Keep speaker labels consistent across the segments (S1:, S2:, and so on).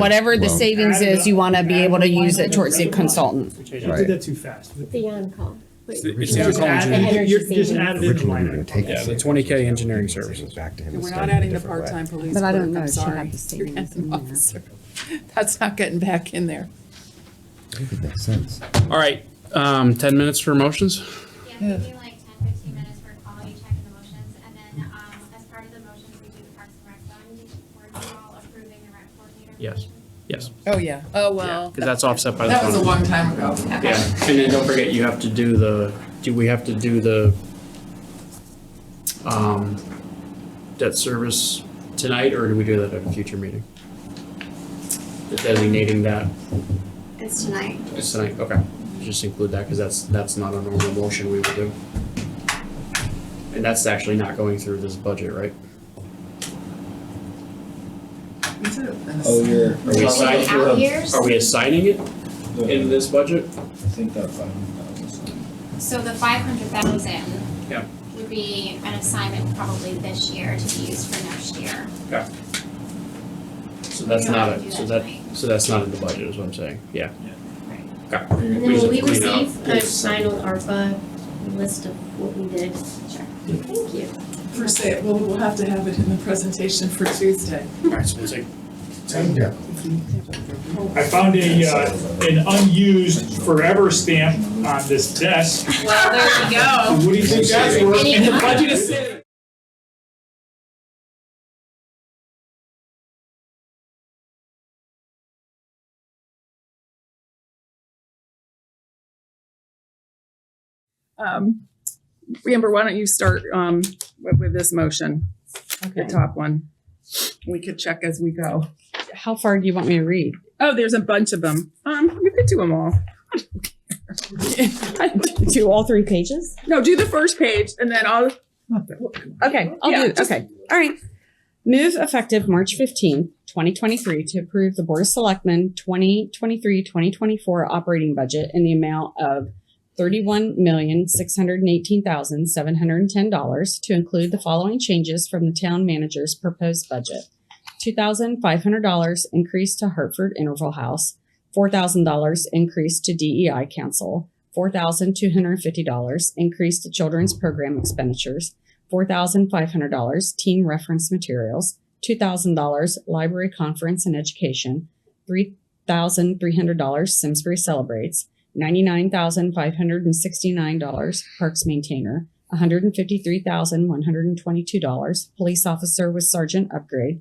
S1: whatever the
S2: well-
S1: savings is, you want to be able to use it towards the consultant.
S3: You
S2: Right.
S3: did that too fast.
S4: The on-call. Wait,
S5: It's
S3: You
S5: the
S3: just
S5: on-call
S3: add-
S5: engineering.
S4: The energy
S3: you just
S4: savings.
S3: added in the
S2: Originally, we
S3: line
S2: were gonna
S3: item.
S2: take.
S5: Yeah, the
S2: savings
S5: 20K
S2: and
S5: engineering
S2: take savings
S5: services.
S2: Back to him.
S6: We're
S2: instead
S6: not
S2: in a
S6: adding the
S2: different way.
S6: part-time police
S1: But I don't
S6: clerk,
S1: know
S6: I'm
S1: if she'd
S6: sorry.
S1: have to
S6: You're
S1: say
S6: adding
S1: anything there.
S6: officer. That's not getting back in there.
S2: I think it makes sense.
S5: All right, um, ten minutes for motions?
S7: Yeah, we do like 10, 15 minutes for quality check and the motions, and then um, as part of the motions, we do the Parks and Rec Fund. We're all approving the rec coordinator.
S5: Yes.
S7: position.
S5: Yes,
S6: Oh, yeah. Oh,
S5: because
S6: well.
S5: that's offset by the.
S6: That was a
S5: phone.
S6: long time ago.
S5: Yeah, and then don't forget, you have to do the, do we have to do the, um, debt service tonight, or do we do that at a future meeting? Designating that
S7: It's tonight.
S5: as tonight, okay, just include that, because that's, that's not a normal motion we would do. And that's actually not going through this budget, right?
S8: Oh, you're, are
S5: Are we
S8: we,
S7: Like
S5: assigning,
S7: the out years?
S5: are we assigning it in
S8: the-
S5: this budget?
S8: I think that five hundred thousand.
S7: So the 500,000
S5: Yeah.
S7: would be an assignment probably this year to be used for next year.
S5: So that's
S7: We don't
S5: not,
S7: have to
S5: a-
S7: do
S5: so
S7: that
S5: that,
S7: tonight.
S5: so that's not in the budget, is what I'm saying, yeah.
S4: And then will we
S5: We just clean up.
S4: receive a final ARPA list of what we did? Sure. Thank you.
S6: For say, well, we'll have to have it in the presentation for Tuesday.
S5: Alright, so we'll take
S3: I found a, uh, an unused forever stamp on this desk.
S6: Well, there you go.
S3: What do you think that's worth? And the budget is sitting
S9: Um, Amber, why don't you start, um, with, with this motion, the
S1: Okay.
S9: top one? We could check as we go.
S1: How far do you want me to read?
S9: Oh, there's a bunch of them. Um, you could do them all. I don't care.
S1: Do all three pages?
S9: No, do the first page and then I'll,
S1: Okay, I'll
S9: Yeah,
S1: do it. Okay. All right. Move effective March 15, 2023 to approve the Board of Selectmen 2023-2024 operating budget in the amount of $31,618,710 to include the following changes from the town manager's proposed budget. $2,500 increase to Hartford Interval House, $4,000 increase to DEI Council, $4,250 increase to children's program expenditures, $4,500 team reference materials, $2,000 library conference and education, $3,300 Simsbury Celebrates, $99,569 parks maintainer, $153,122 police officer with sergeant upgrade,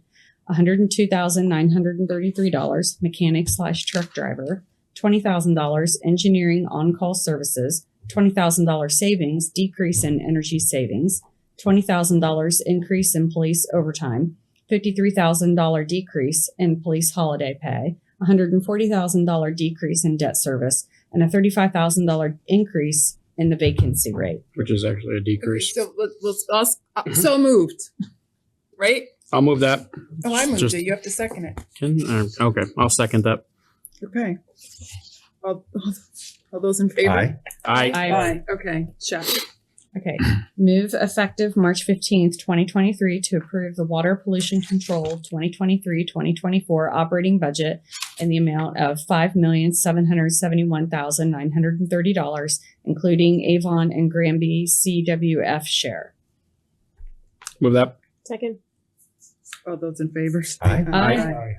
S1: $102,933 mechanic slash truck driver, $20,000 engineering on-call services, $20,000 savings, decrease in energy savings, $20,000 increase in police overtime, $53,000 decrease in police holiday pay, $140,000 decrease in debt service, and a $35,000 increase in the vacancy rate.
S5: Which is actually a decrease.
S6: so let's, let's- I'll s- uh, so moved, right?
S5: I'll move that.
S6: Oh, I moved
S5: Just-
S6: it. You have to second it.
S5: Can, uh, okay, I'll second that.
S9: okay. All, all those in favor?
S2: Aye.
S5: I,
S9: Aye, okay, check.
S1: Okay. Move effective March 15th, 2023 to approve the Water Pollution Control 2023-2024 operating budget in the amount of $5,771,930, including Avon and Granby CWF share.
S5: move that.
S4: Second.
S9: All those in favor?
S2: Aye.
S1: Aye.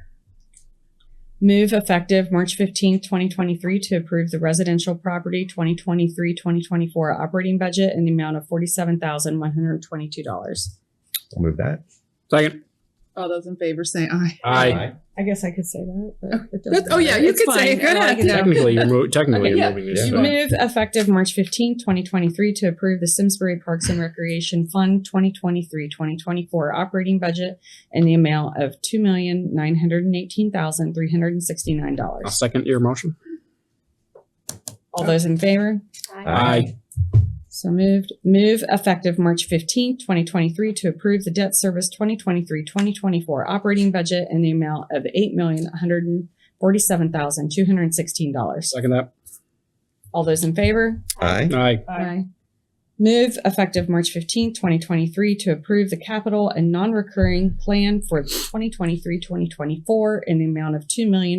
S1: Move effective March 15th, 2023 to approve the residential property 2023-2024 operating budget in the amount of $47,122.
S2: I'll move that.
S5: Second.
S9: All those in favor say aye.
S5: I
S1: I guess I could say that, but it doesn't
S9: That's- Oh, yeah,
S1: matter.
S9: you
S1: It's
S9: could say
S1: fine.
S9: it. Go
S1: I like
S9: ahead.
S1: it now.
S5: Technically, you're mo- technically
S9: Okay,
S5: you're
S9: yeah.
S5: moving this.
S2: You
S5: back.
S1: Move effective March 15, 2023 to approve the Simsbury Parks and Recreation Fund 2023-2024 operating budget in the amount of
S5: I'll
S1: $2,918,369.
S5: second your motion.
S1: All those in favor? So moved. Move effective March 15, 2023 to approve the debt service 2023-2024 operating budget in the amount of $8,147,216.
S5: Second that.
S1: All those in favor?
S2: Aye.
S5: Aye.
S1: Aye. Move effective March 15, 2023 to approve the capital and non-recurring plan for 2023-2024 in the amount of two million.